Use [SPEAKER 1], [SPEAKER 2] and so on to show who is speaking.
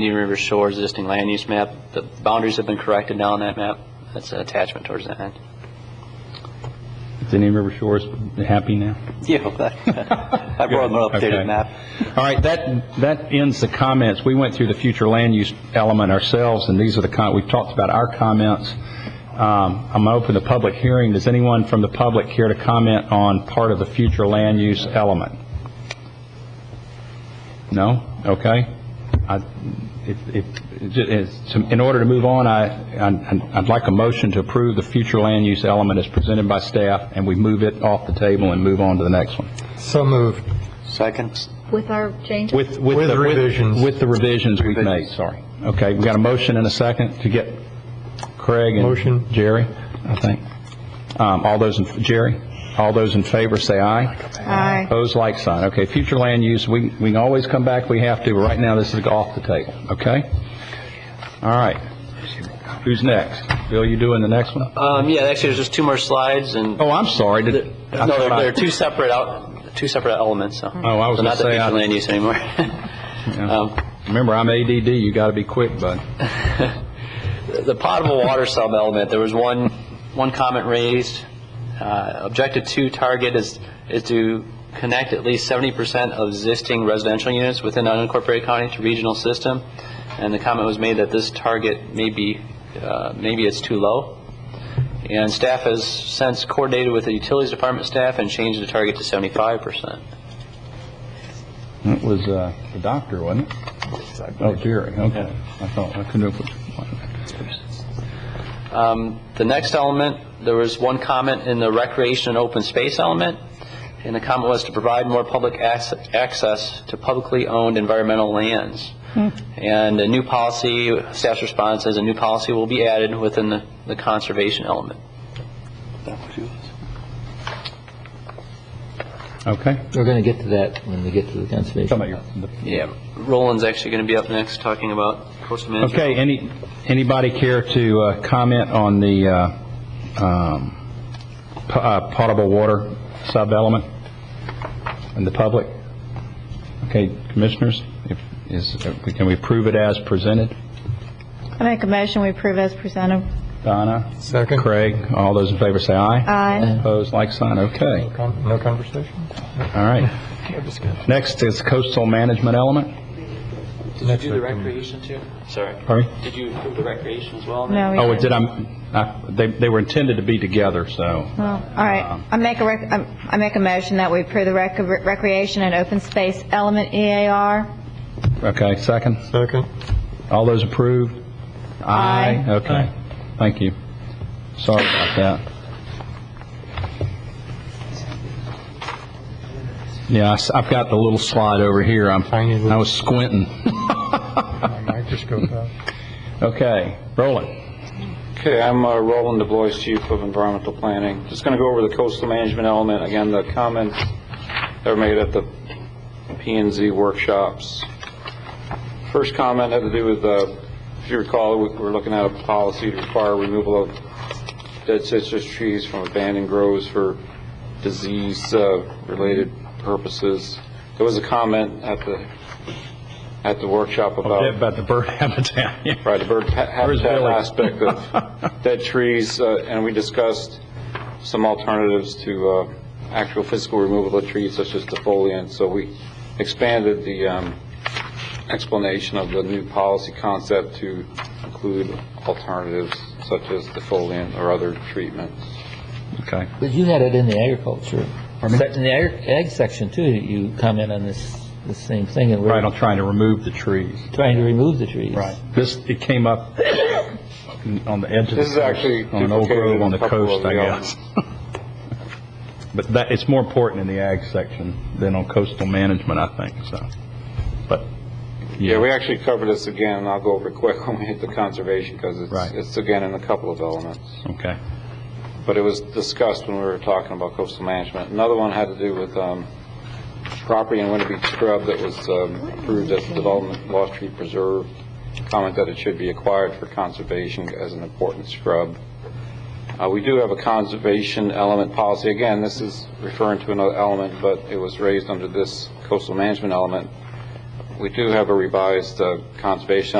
[SPEAKER 1] Indian River Shores existing land use map, the boundaries have been corrected now on that map. That's an attachment towards the end.
[SPEAKER 2] Is any River Shores happy now?
[SPEAKER 1] Yeah, I brought an
[SPEAKER 2] Okay.
[SPEAKER 1] updated map.
[SPEAKER 2] All right, that, that ends the comments. We went through the future land use element ourselves, and these are the, con- we've talked about our comments. Um, I'm going to open the public hearing. Does anyone from the public care to comment on part of the future land use element? No? Okay. I- if- if- it's- In order to move on, I, I'd- I'd like a motion to approve the future land use element as presented by staff, and we move it off the table and move on to the next one.
[SPEAKER 3] So moved.
[SPEAKER 1] Second?
[SPEAKER 4] With our change,
[SPEAKER 2] With, with.
[SPEAKER 3] With
[SPEAKER 2] the-
[SPEAKER 3] revisions.
[SPEAKER 2] With the revisions we've made,
[SPEAKER 1] Revisions.
[SPEAKER 2] sorry. Okay, we got a motion and a second to get Craig and.
[SPEAKER 3] Motion.
[SPEAKER 2] Jerry, I think. Um, all those, in Jerry, all those in favor, say aye.
[SPEAKER 4] Aye.
[SPEAKER 2] Opposed, like sign. Okay, future land use, we, we can always come back, we have to, but right now, this is off the table, okay? All right. Who's next? Bill, you doing the next one?
[SPEAKER 1] Um, yeah, actually, there's just two more slides, and,
[SPEAKER 2] Oh, I'm sorry.
[SPEAKER 1] no,
[SPEAKER 2] did- I
[SPEAKER 1] they're,
[SPEAKER 2] thought I-
[SPEAKER 1] they're two separate out, two separate elements, so.
[SPEAKER 2] Oh, I was
[SPEAKER 1] So
[SPEAKER 2] gonna
[SPEAKER 1] not the
[SPEAKER 2] say, I-
[SPEAKER 1] future land use anymore.
[SPEAKER 2] Yeah.
[SPEAKER 1] Um,
[SPEAKER 2] Remember, I'm ADD, you gotta be quick, bud.
[SPEAKER 1] the potable water sub element, there was one, one comment raised. Uh, Objective two target is, is to connect at least seventy percent of existing residential units within unincorporated county to regional system. And the comment was made that this target may be, uh, maybe it's too low. And staff has since coordinated with the utilities department staff and changed the target to seventy-five percent.
[SPEAKER 2] It was uh, the doctor, wasn't it? Oh, Jerry, okay. I thought, I couldn't have...
[SPEAKER 1] Um, The next element, there was one comment in the recreation and open space element, and the comment was to provide more public ac- access to publicly owned environmental lands. And a new policy, staff's response is a new policy will be added within the the conservation element.
[SPEAKER 2] Okay.
[SPEAKER 5] We're going to get to that when we get to the conservation.
[SPEAKER 2] Talking about your- the-
[SPEAKER 1] Yeah, Roland's actually going to be up next talking about coastal management.
[SPEAKER 2] Okay, any, anybody care to uh, comment on the uh, um, po- uh, potable water sub-element in the public? Okay, commissioners, if, is, can we prove it as presented?
[SPEAKER 4] I make a motion, we approve as presented.
[SPEAKER 2] Donna?
[SPEAKER 3] Second.
[SPEAKER 2] Craig, all those in favor say aye.
[SPEAKER 4] Aye.
[SPEAKER 2] Opposed, like sign, okay.
[SPEAKER 3] Con- No conversation?
[SPEAKER 2] All right.
[SPEAKER 3] No discussion.
[SPEAKER 2] Next
[SPEAKER 3] Next.
[SPEAKER 2] is coastal management element.
[SPEAKER 1] Did you do the recreation too? Sorry.
[SPEAKER 2] Pardon?
[SPEAKER 1] Did you approve the recreation as well?
[SPEAKER 4] No, we
[SPEAKER 2] Oh,
[SPEAKER 4] didn't.
[SPEAKER 2] did I, I- they, they were intended to be together, so,
[SPEAKER 4] Well, all
[SPEAKER 2] Um,
[SPEAKER 4] right. I make a, rec- I I make a motion that we approve the rec- recreation and open space element E EAR.
[SPEAKER 2] okay, second.
[SPEAKER 3] Second.
[SPEAKER 2] All those approved?
[SPEAKER 4] Aye.
[SPEAKER 2] Okay, thank you. Sorry about that. Yeah, I s- I've got the little slide over here, I'm,
[SPEAKER 3] Tiny little-
[SPEAKER 2] I was squinting.
[SPEAKER 3] Microscope up.
[SPEAKER 2] Okay, Roland.
[SPEAKER 6] Okay, I'm uh, Roland DeBois, Chief of Environmental Planning. Just going to go over the coastal management element. Again, the comments that were made at the p and Z workshops. First comment had to do with, uh, if you recall, we were looking at a policy to require removal of dead citrus trees from abandoned groves for disease-related purposes. There was a comment at the, at the workshop about...
[SPEAKER 2] About the bird habitat. yeah.
[SPEAKER 6] Right, the bird ha-
[SPEAKER 2] Where's
[SPEAKER 6] habitat
[SPEAKER 2] Billy?
[SPEAKER 6] aspect of dead trees, uh, and we discussed some alternatives to uh, actual physical removal of trees such as defoliant. So we expanded the um, explanation of the new policy concept to include alternatives such as defoliant or other treatments.
[SPEAKER 2] Okay.
[SPEAKER 5] But you had it in the agriculture, sec- in the ag ag section too, you comment on this, the same thing, and
[SPEAKER 2] Right,
[SPEAKER 5] we're
[SPEAKER 2] I'm trying to remove the trees.
[SPEAKER 5] trying to remove the trees.
[SPEAKER 2] This, it came up on the edge of the coast.
[SPEAKER 6] This is actually
[SPEAKER 2] On an old
[SPEAKER 6] duplicated
[SPEAKER 2] grove
[SPEAKER 6] in
[SPEAKER 2] on the
[SPEAKER 6] a couple
[SPEAKER 2] coast,
[SPEAKER 6] of
[SPEAKER 2] I
[SPEAKER 6] the
[SPEAKER 2] guess. But that, it's more important in the ag section than on coastal management, I think, so. But,
[SPEAKER 6] Yeah, we actually covered this again, and I'll go over it quick when we hit the conservation, because
[SPEAKER 2] Right.
[SPEAKER 6] it's, it's again in a couple of elements.
[SPEAKER 2] okay.
[SPEAKER 6] but it was discussed when we were talking about coastal management. Another one had to do with um, property in Winter Beach Scrub that was um, approved as a development lost tree preserve, comment that it should be acquired for conservation as an important scrub. Uh, We do have a conservation element policy. Again, this is referring to another element, but it was raised under this coastal management element. we do have a revised uh, conservation